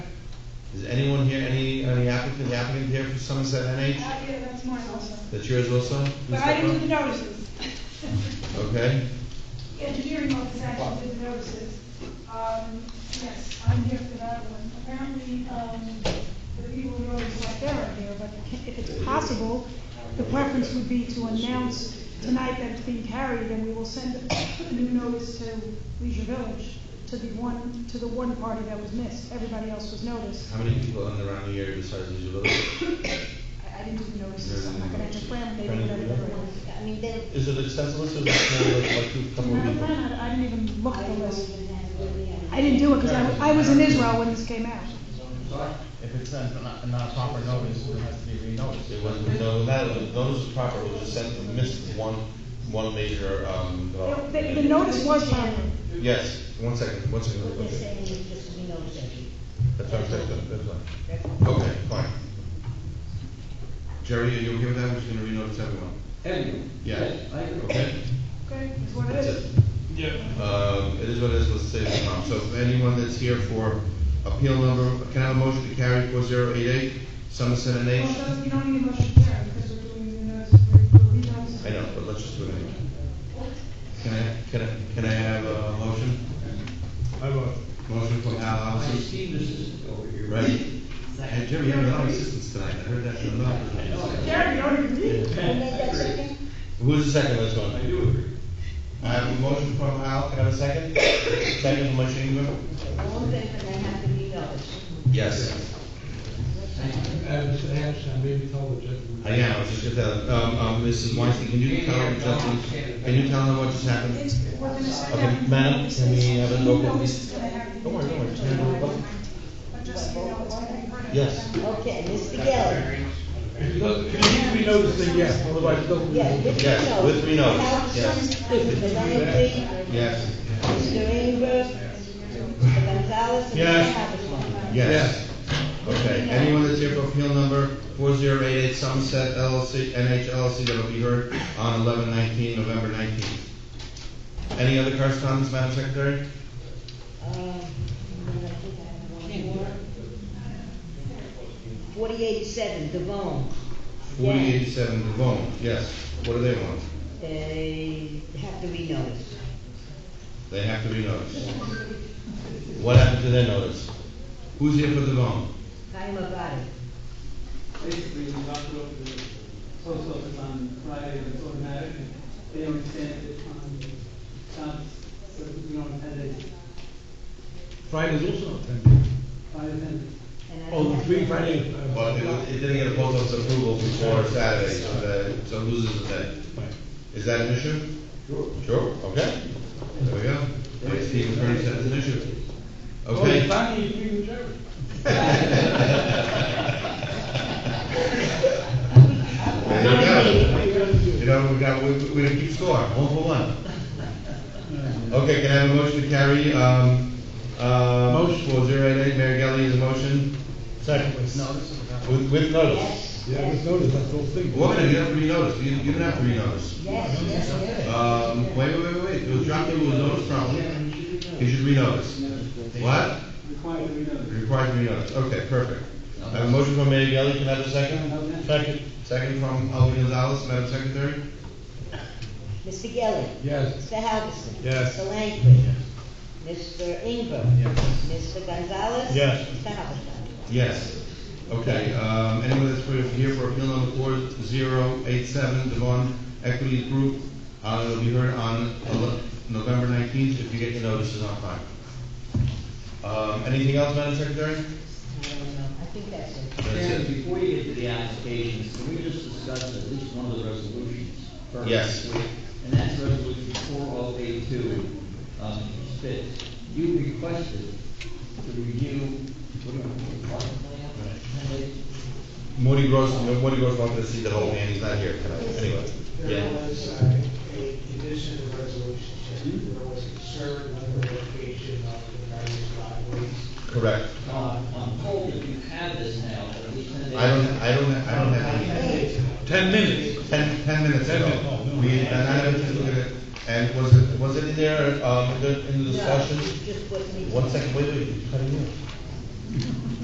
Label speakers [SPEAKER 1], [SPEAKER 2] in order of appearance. [SPEAKER 1] Is anyone here, any, any applicant, the applicant here for Somerset NH?
[SPEAKER 2] Uh, yeah, that's mine also.
[SPEAKER 1] That's yours also? Ms.
[SPEAKER 2] But I didn't do the
[SPEAKER 1] Efron?
[SPEAKER 2] notices.
[SPEAKER 1] Okay,
[SPEAKER 2] Engineering office actually did the notices. Um, yes, I'm here for that one. Apparently, um, the people who always like there are here, but if it's possible, the preference would be to announce tonight that it's being carried, and we will send a new notice to Leisure Village, to the one, to the one party that was missed. Everybody else was noticed.
[SPEAKER 1] how many people in the round here besides Leisure Village?
[SPEAKER 2] I, I didn't do the notices, I'm not gonna have to cram, they didn't know they were-
[SPEAKER 3] I mean, they.
[SPEAKER 1] Is it extensive list or is it small, like, like two, couple of
[SPEAKER 2] Madam
[SPEAKER 1] people?
[SPEAKER 2] President, I didn't even look
[SPEAKER 3] I
[SPEAKER 2] at the
[SPEAKER 3] don't
[SPEAKER 2] list.
[SPEAKER 3] even have where we are.
[SPEAKER 2] I didn't do it because I, I was in Israel when this came out.
[SPEAKER 4] If it's not, not- not proper notice, it has to be re-noticed.
[SPEAKER 1] It wasn't, no, that, those was proper, it was just sent, missed one, one major, um, development.
[SPEAKER 2] The, the notice was proper.
[SPEAKER 1] Yes, one second, one second.
[SPEAKER 3] What they're
[SPEAKER 1] okay.
[SPEAKER 3] saying is just we notice
[SPEAKER 1] That's what I'm saying, that- that's fine. Okay, fine. Jerry, are you okay with that? We're just gonna renotice everyone.
[SPEAKER 5] Anyway.
[SPEAKER 1] Yeah.
[SPEAKER 5] I agree.
[SPEAKER 1] Okay?
[SPEAKER 2] Okay, is what it
[SPEAKER 1] That's it.
[SPEAKER 2] is.
[SPEAKER 1] Yeah. Um, it is what it is, let's save the time. So if anyone that's here for appeal number, can I have a motion to carry four zero eight eight, Somerset and
[SPEAKER 2] Well,
[SPEAKER 1] H?
[SPEAKER 2] that's- you don't need a motion there because we're doing the notice, we're doing the notice.
[SPEAKER 1] I know, but let's just do it anyway. Can I, can I, can I have a motion? I vote. Motion from Al
[SPEAKER 5] I
[SPEAKER 1] Alves,
[SPEAKER 5] see this is over here.
[SPEAKER 1] right? Hey, Jerry, you have a lot of assistance tonight, I heard that from a lot of people.
[SPEAKER 2] Jerry, you don't even need it.
[SPEAKER 3] Who made that second?
[SPEAKER 1] Who's the second, let's go.
[SPEAKER 5] do agree.
[SPEAKER 1] I have a motion from Al, can I have a second? Second from Mike Ingram?
[SPEAKER 3] All in favor, they have to be noticed.
[SPEAKER 1] Yes.
[SPEAKER 6] Uh, Mr. Anderson, maybe tell the gentleman.
[SPEAKER 1] I am, I was just gonna tell, um, um, Mrs. Weinstein, can you tell them, just- can you tell them what just happened?
[SPEAKER 2] It's, we're gonna sit
[SPEAKER 1] Okay,
[SPEAKER 2] down.
[SPEAKER 1] madam, can we have a
[SPEAKER 2] You
[SPEAKER 1] local
[SPEAKER 2] know
[SPEAKER 1] police-
[SPEAKER 2] this is gonna happen.
[SPEAKER 1] Don't worry, don't worry, just hand it over.
[SPEAKER 2] But just so you know, it's gonna be part of it.
[SPEAKER 1] Yes.
[SPEAKER 3] Okay, Mr. Gelli.
[SPEAKER 6] If you don't- if you need to be noticed, then yes, otherwise it doesn't.
[SPEAKER 3] Yeah, with me
[SPEAKER 1] Yes,
[SPEAKER 3] notice.
[SPEAKER 1] with me notice,
[SPEAKER 3] Without
[SPEAKER 1] yes.
[SPEAKER 3] some- Mr. Langley,
[SPEAKER 1] Yes.
[SPEAKER 3] Mr. Ingram, Mr. Gonzalez, and Mr.
[SPEAKER 1] Yes.
[SPEAKER 3] Habersman.
[SPEAKER 1] Yes. Okay, anyone that's here for appeal number four zero eight eight Somerset LLC, NH LLC, that will be heard on eleven nineteen, November nineteenth. Any other correspondence, Madam Secretary?
[SPEAKER 3] Um, I think I have one more. Forty-eighty-seven, Devon.
[SPEAKER 1] Forty eighty-seven Devon, yes, what do they want?
[SPEAKER 3] They have to be noticed.
[SPEAKER 1] They have to be noticed. What happened to their notice? Who's here for Devon?
[SPEAKER 3] Chaim Abadi.
[SPEAKER 7] basically, we locked it up to the post office on Friday, and it's automatic, and they don't stamp it on Sunday, so we don't have it,
[SPEAKER 6] Friday is also not ten days.
[SPEAKER 7] Friday, Sunday.
[SPEAKER 3] And I
[SPEAKER 6] Oh,
[SPEAKER 3] don't
[SPEAKER 6] the
[SPEAKER 3] have
[SPEAKER 6] three
[SPEAKER 3] that.
[SPEAKER 6] Friday. uh,
[SPEAKER 1] Well, it was- it didn't get a post office approval before Saturday, so that, so it loses the day.
[SPEAKER 6] Right.
[SPEAKER 1] Is that an issue? Sure, okay. There we go. Thanks, Steve, attorney said it's an issue.
[SPEAKER 6] Oh, it's
[SPEAKER 1] Okay.
[SPEAKER 6] Friday, you agree with Jerry.
[SPEAKER 1] There you go. You know, we got, we, we didn't keep score, one for one. Okay, can I have a motion to carry, um, uh, motion four zero eight eight, Mary Gelli is a motion? Second.
[SPEAKER 4] Notice of the-
[SPEAKER 1] With, with notice.
[SPEAKER 3] Yes,
[SPEAKER 6] Yeah, with
[SPEAKER 3] yes,
[SPEAKER 6] notice, that's the whole thing.
[SPEAKER 1] Woman, you have to be noticed, you, you don't have to be noticed.
[SPEAKER 3] yes, yes, yes.
[SPEAKER 1] Um, wait, wait, wait, wait, it was dropped, it was noticed properly, you should be noticed. What?
[SPEAKER 7] Required to be noticed.
[SPEAKER 1] Required to be noticed, okay, perfect. I have a motion from Mayor Gelli, can I have a second?
[SPEAKER 7] Okay.
[SPEAKER 1] Second. Second from Alvin Gonzalez, Madam Secretary?
[SPEAKER 3] Mr. Gelli.
[SPEAKER 6] Yes.
[SPEAKER 3] Mr. Halverson.
[SPEAKER 6] Yes.
[SPEAKER 3] Mr. Langley. Mr. Ingram. Mr. Gonzalez.
[SPEAKER 1] Yes.
[SPEAKER 3] Mr. Halverson.
[SPEAKER 1] Yes. Okay, um, anyone that's for- here for appeal number four zero eight seven, Devon Equities Group, uh, it'll be heard on ele- November nineteenth, if you get your notices on time. Um, anything else, Madam Secretary?
[SPEAKER 3] I don't know, I think that's it.
[SPEAKER 1] That's
[SPEAKER 5] Sharon,
[SPEAKER 1] it.
[SPEAKER 5] before you get to the applications, can we just discuss at least one of the resolutions? first?
[SPEAKER 1] Yes.
[SPEAKER 5] And that's resolution four oh eight two, um, Spitz. You requested to review, what do you want, park plan? And they-
[SPEAKER 1] Morty Gross, Morty Gross wanted to see the whole man, he's not here tonight, anyway.
[SPEAKER 8] There
[SPEAKER 1] Yeah,
[SPEAKER 8] was uh, a condition of resolution,
[SPEAKER 7] Hmm?
[SPEAKER 8] just there was a concern on the location of the various driveways.
[SPEAKER 1] correct.
[SPEAKER 5] Um, I'm told that you have this now, but at least ten days.
[SPEAKER 1] I don't, I don't, I don't have any.
[SPEAKER 6] Ten minutes.
[SPEAKER 1] Ten, ten minutes
[SPEAKER 6] Ten
[SPEAKER 1] ago.
[SPEAKER 6] minutes, oh, no.
[SPEAKER 1] We, and I had to look at it, and was it, was it in there, um, in the, in the
[SPEAKER 3] No,
[SPEAKER 1] discussion?
[SPEAKER 3] it's Just what we.
[SPEAKER 1] One second, wait, wait, you cut it off.